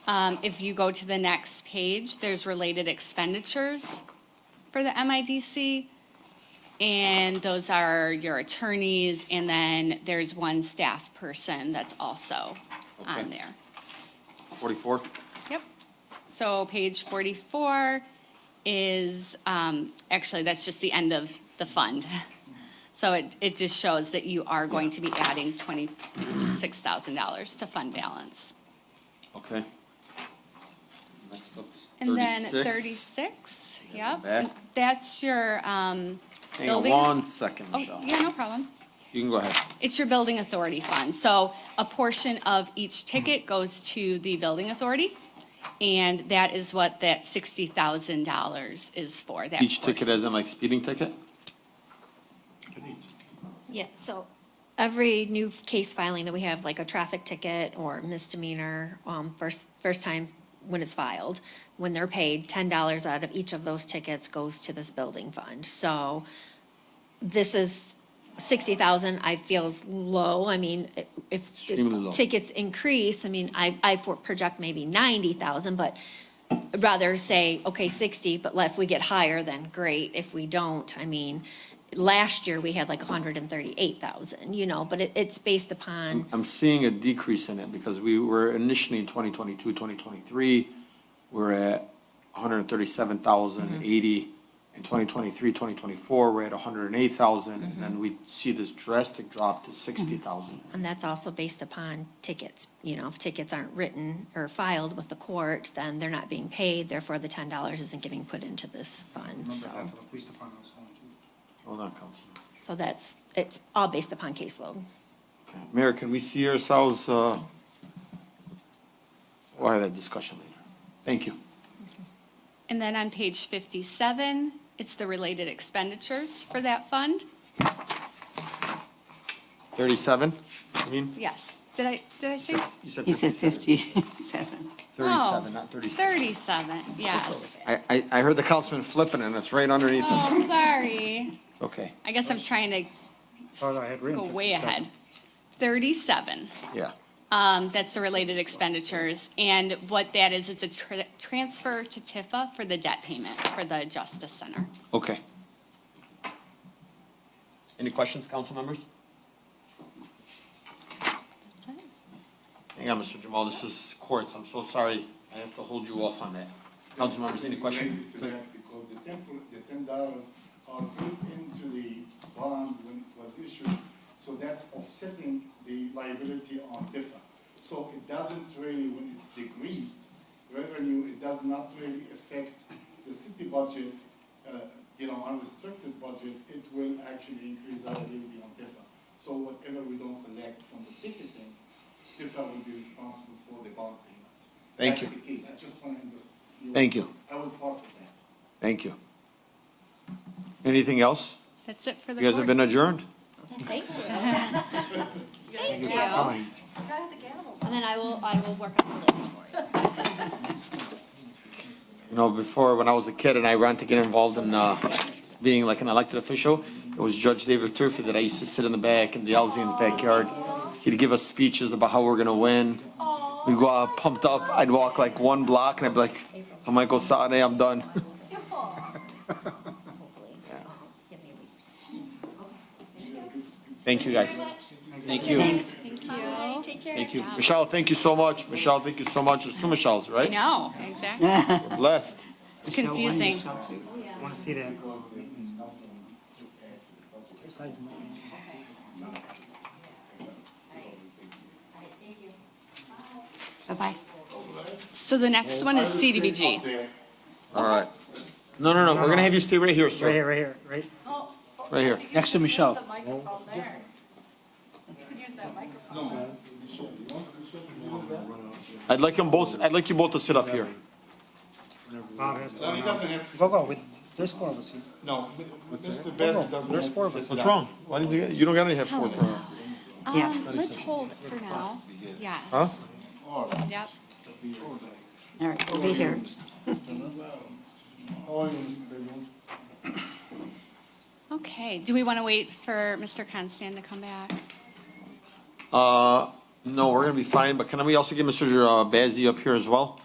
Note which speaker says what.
Speaker 1: Um, If you go to the next page, there's related expenditures for the MIDC. And those are your attorneys, and then there's one staff person that's also on
Speaker 2: Okay.
Speaker 1: there.
Speaker 2: Forty-four?
Speaker 1: Yep. So page 44 is, um, actually, that's just the end of the fund. So it, it just shows that you are going to be adding $26,000 to fund balance.
Speaker 2: Okay. Next up is
Speaker 1: And then
Speaker 2: 36.
Speaker 1: 36, yep.
Speaker 2: Back.
Speaker 1: That's your, um,
Speaker 2: Hang on
Speaker 1: building-
Speaker 2: one second,
Speaker 1: oh,
Speaker 2: Michelle.
Speaker 1: yeah, no problem.
Speaker 2: You can go ahead.
Speaker 1: It's your building authority fund. So a portion of each ticket goes to the building authority. And that is what that sixty thousand dollars is for, that
Speaker 2: Each
Speaker 1: portion.
Speaker 2: ticket as in like speeding ticket?
Speaker 3: Yeah, so every new f- case filing that we have, like a traffic ticket or misdemeanor, um, first, first time when it's filed, when they're paid, ten dollars out of each of those tickets goes to this building fund. So this is sixty thousand, I feel is low. I mean, i- if
Speaker 2: Extremely low.
Speaker 3: tickets increase, I mean, I, I for- project maybe ninety thousand, but rather say, okay, sixty, but if we get higher, then great. If we don't, I mean, last year we had like hundred and thirty-eight thousand, you know, but it, it's based upon,
Speaker 2: I'm seeing a decrease in it because we were initially in 2022, 2023, we're at 137,080. In 2023, 2024, we're at 108,000,
Speaker 1: Mm-hmm.
Speaker 2: and then we see this drastic drop to 60,000.
Speaker 3: and that's also based upon tickets. You know, if tickets aren't written or filed with the court, then they're not being paid, therefore the ten dollars isn't getting put into this fund,
Speaker 4: Remember
Speaker 3: so.
Speaker 4: half of the police department was going to.
Speaker 2: Hold on, Councilman.
Speaker 3: So that's, it's all based upon caseload.
Speaker 2: Okay. Mayor, can we see ourselves, uh, we'll have that discussion later. Thank you.
Speaker 1: And then on page fifty-seven, it's the related expenditures for that fund.
Speaker 2: 37, I mean?
Speaker 1: Yes, did I, did I say? Oh,
Speaker 2: You said
Speaker 5: He said
Speaker 2: 57.
Speaker 5: 57.
Speaker 2: 37, not 36.
Speaker 1: Thirty-seven, yes.
Speaker 2: I, I, I heard the councilman flipping and it's right underneath us.
Speaker 1: Oh, sorry.
Speaker 2: Okay,
Speaker 1: I guess I'm trying to
Speaker 4: Thought I had written
Speaker 1: go way
Speaker 4: 57.
Speaker 1: ahead. Thirty-seven.
Speaker 2: yeah.
Speaker 1: Um, that's the related expenditures, and what that is, it's a tr- transfer to Tifa for the debt payment for the Justice Center.
Speaker 2: Okay. Any questions, council members?
Speaker 1: That's it.
Speaker 2: Hang on, Mr. Jamal, this is courts, I'm so sorry, I have to hold you off on that. Council members, any questions?
Speaker 6: Related to that, Because the ten, the ten dollars are built into the bond when it was issued, so that's offsetting the liability on DIFA. So it doesn't really, when it's decreased revenue, it does not really affect the city budget, uh, you know, unrestricted budget, it will actually increase liability on DIFA. So whatever we don't collect from the ticketing, DIFA will be responsible for the bond payment.
Speaker 2: Thank
Speaker 6: That's
Speaker 2: you.
Speaker 6: the case, I just want to just.
Speaker 2: Thank you.
Speaker 6: I was part of that.
Speaker 2: Thank you. Anything else?
Speaker 1: That's it for the
Speaker 2: You guys have
Speaker 1: board.
Speaker 2: been adjourned?
Speaker 3: Thank you. Thank you. And then I will, I will work on the list for you.
Speaker 2: You know, before, when I was a kid and I ran to get involved in, uh, being like an elected official, it was Judge David Turfey that I used to sit in the back in the Alzian's backyard. He'd give us speeches about how we're gonna win. We'd go out pumped up, I'd walk like one block and I'd be like, I'm Michael Sade, I'm done. Thank you, guys. Thank you. Thank you. Thank you. Michelle, thank you so much. Michelle, thank you so much. There's two Michelles,
Speaker 1: I
Speaker 2: right?
Speaker 1: know, exactly.
Speaker 2: We're Blessed.
Speaker 1: It's confusing.
Speaker 4: Want to see that?
Speaker 5: Bye-bye.
Speaker 1: So the next one is CDBG.
Speaker 2: All right. No, no, no, we're gonna have you stay right here,
Speaker 4: Right
Speaker 2: sir,
Speaker 4: here, right here, right?
Speaker 2: right here.
Speaker 7: Next to Michelle.
Speaker 2: I'd like them both, I'd like you both to sit up here.
Speaker 4: Bob has to.
Speaker 6: No, he doesn't have to,
Speaker 4: Go, go, with, there's four of us here.
Speaker 6: no, Mr. Bez doesn't
Speaker 4: There's
Speaker 6: have
Speaker 4: four
Speaker 6: to
Speaker 4: of
Speaker 6: sit
Speaker 4: us.
Speaker 2: What's wrong? Why did you, get- you don't got any have four for,
Speaker 5: Yeah.
Speaker 1: Um, let's hold it for now, yes.
Speaker 2: huh?
Speaker 1: Yep.
Speaker 5: All right, we'll be here.
Speaker 6: How are you, Mr. Bellwood?
Speaker 1: Okay, do we want to wait for Mr. Constan to come back?
Speaker 2: Uh, no, we're gonna be fine, but can we also get Mr. Bazey up here as well?